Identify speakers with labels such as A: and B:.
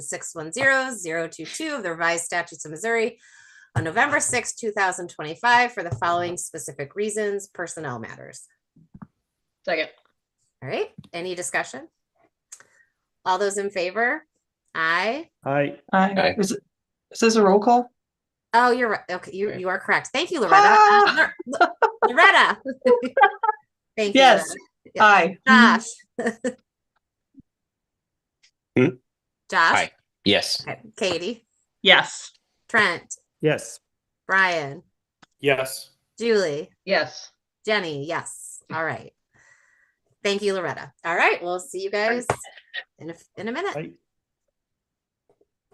A: six one zero zero two two of the revised statutes of Missouri on November 6, thousand twenty-five for the following specific reasons, personnel matters.
B: Second,
A: All right, any discussion? All those in favor? Aye.
C: Aye,
D: Aye.
E: Aye. Is, it- is this a roll call?
A: Oh, you're right. Okay, you,
D: Right.
A: you are correct. Thank you, Loretta. Uh, Lor- Loretta. Thank you.
E: Yes.
A: Loretta. Yeah.
E: Aye.
A: Josh.
D: Hmm?
A: Josh,
D: Aye. Yes.
A: Katie,
B: yes.
A: Trent,
C: yes.
A: Brian,
C: Yes.
A: Julie.
B: Yes.
A: Jenny, yes. All right. Thank you, Loretta. All right, we'll see you guys in a, in a minute.
C: Aye.